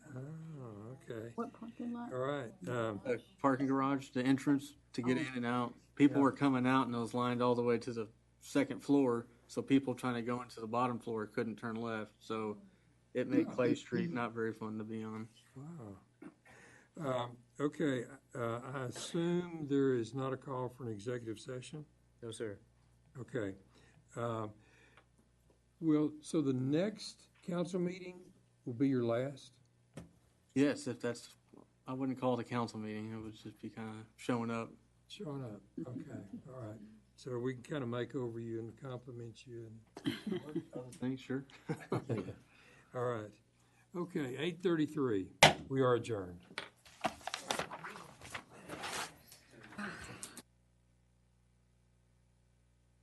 Oh, okay, What parking lot? all right. Um, a parking garage, the entrance to get in and out. People were coming out and those lined all the way to the second floor, so people trying to go into the bottom floor couldn't turn left, so it made Clay Street not very fun to be on. um, Okay, uh, I assume there is not a call for an executive session? No, sir. Okay. Um, Well, so the next council meeting will be your last? Yes, if that's, I wouldn't call it a council meeting, it would just be kind of showing up. Showing up, okay, all right. So we can kind of make over you and compliment you and Thanks, sure. All right. Okay, eight thirty-three, we are adjourned.